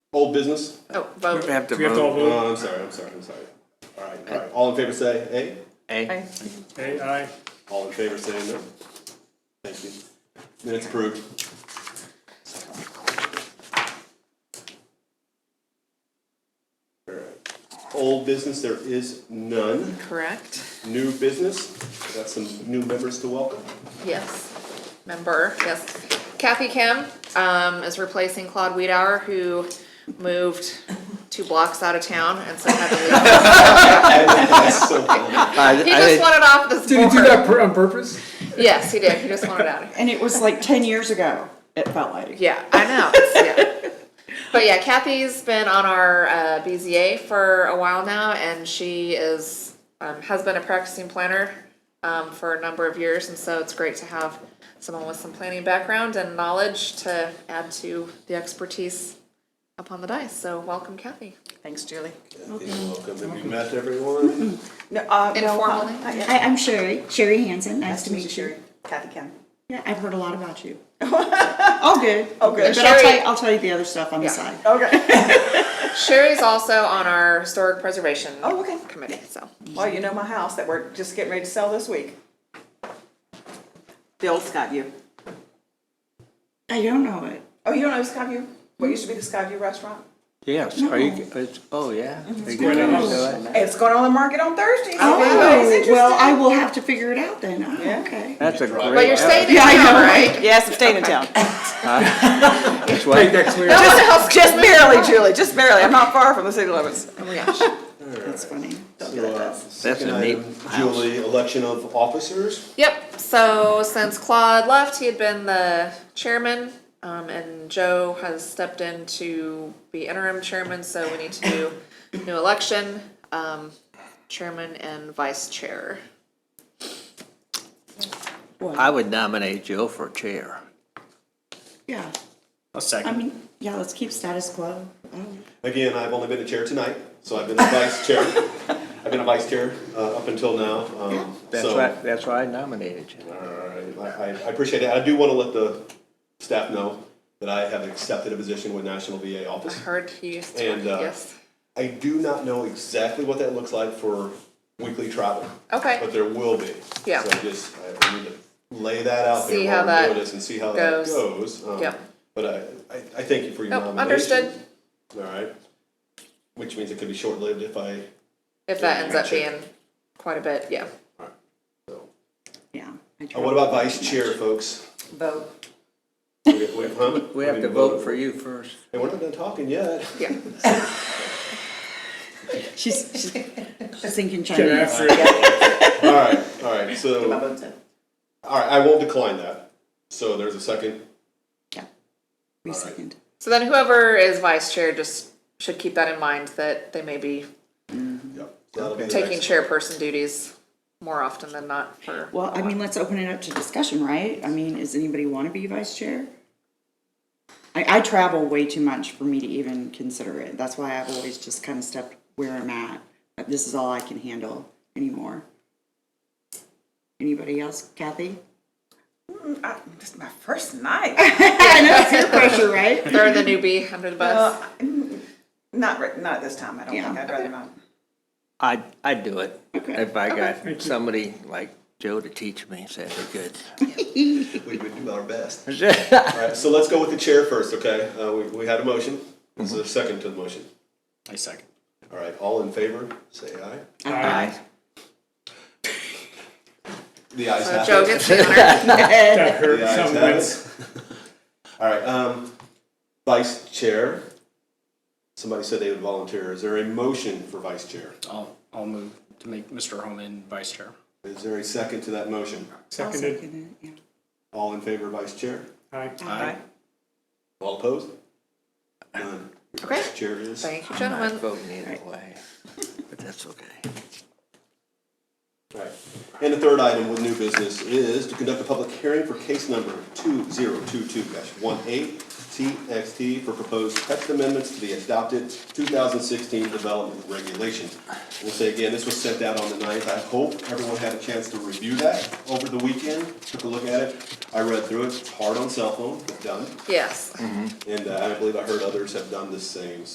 old business? Oh, vote. We have to We have to all vote. vote. Oh, I'm sorry, I'm sorry, I'm sorry. All right, all right, all in favor say aye, A. Aye. Aye, aye. all in favor say no. Thank you. Minutes approved. All right. Old business, there is none. Correct. New business, we got some new members to welcome. Yes. Member, yes. Kathy Kim, um, is replacing Claude Weedower, who moved two blocks out of town and so had to leave. That's so funny. I- He I- just wanted off this Did he do board. that per- on purpose? Yes, he did. He just wanted out of here. And it was like ten years ago, it felt like. Yeah, I know. It's- yeah. But yeah, Kathy's been on our uh, BZA for a while now, and she is um, has been a practicing planner um, for a number of years, and so it's great to have someone with some planning background and knowledge to add to the expertise up on the dice. So welcome, Kathy. Thanks, Julie. Welcome, have you met everyone? No, uh, no, huh? Informally. Hi, Hi, I'm Sherry, Sherry Hansen, nice to meet you. Sherry. Kathy Kim. Yeah, I've heard a lot about you. All good, all good. But I'll tell Sherry- you, I'll tell you the other stuff on the Yeah. side. Okay. Sherry's also on our historic preservation Oh, okay. committee. So Well, you know my house that we're just getting ready to sell this week. The old Skyview. I don't know it. Oh, you don't know Skyview? What used to be the Skyview restaurant? Yes, are you, it's, oh, yeah. Are you right gonna on. do it? It's going on the market on Thursday. so if anybody's Oh, interested- well, I will have to figure it out then. Oh, Yeah. okay. That's a great. but you're staying in Yeah, I town, know, right? Yes, I'm staying in town. That's why- Next week. No one else Just can- barely, Julie, just barely. I'm not far from the city limits. Oh my gosh. That's funny. So, uh, second a neat item, Julie, election of officers. Yep. So since Claude left, he had been the chairman, um, and Joe has stepped in to be interim chairman. So we need to do new election, um, chairman and vice chair. I would nominate Jill for chair. Yeah, A I second. mean, yeah, let's keep status quo. Oh, Again, I've only been a chair tonight, so I've been a vice chair. I've been a vice chair uh, up until now. um, That's so- why, that's why I nominated you. All right, I, I I appreciate it. I do want to let the staff know that I have accepted a position with National VA I Office. heard he used to. And, uh, yes. I do not know exactly what that looks like for weekly travel. Okay. But there will be. Yeah. So I just, I need to lay that out there See how while we're that doing this and see how that goes. goes. um, Yep. But I, I, I thank you for your Nope, nomination. understood. All right. Which means it could be short-lived if I, If that ends up Chair. being quite a bit, yeah. so. Yeah. I Uh, What about vice chair, folks? Vote. We we- huh? We have to didn't vote for you first. Hey, we're not done talking yet. Yeah. tried. She's, she's thinking Get Chinese. after it. All right, all right, My so, vote's in. all right, I won't decline that. So there's a second. Yeah. We second. So then whoever is vice chair just should keep that in mind that they may be Yep. that'll be the taking next- chairperson duties more often than not for. Well, I mean, let's open it up to discussion, right? I mean, does anybody want to be vice chair? I, I travel way too much for me to even consider it. That's why I've always just kind of stepped where I'm at. But This is all I can handle anymore. Anybody else? Kathy? I- This is my first night. I know, it's your pressure, right? They're the newbie under the bus. Uh, Not, right- not this time, I don't think, Yeah. I'd rather not. I'd, I'd do it. Okay. If I got somebody like Joe to teach me, so that'd be good. We would do our best. All right, so let's go with the chair first, okay? Uh, we, we had a motion. Is Mm-hmm. there a second to the motion? I second. All right, all in favor, say aye. Aye. The ayes So have Uh, Joe it. gets the honor. That hurt The ayes have some minutes. it. All right, um, vice chair. Somebody said they would volunteer. Is there a motion for vice chair? I'll, I'll move to make Mr. Holman vice chair. Is there a second to that motion? I'll Seconded. second it, yeah. All in favor, vice chair? Aye. Aye. All opposed? None. Okay. Chair is. Thank you, I'm not gentlemen. voting either way, but that's okay. Right. And the third item with new business is to conduct a public hearing for case number two zero two two 18 TXT for proposed text amendments to the adopted two thousand sixteen development regulation. We'll say again, this was sent out on the 9th. I hope everyone had a chance to review that over the weekend, took a look at it. I read through it. It's hard on cell phone, but done. Yes. Mm-hmm. And uh, I believe I heard others have done the same,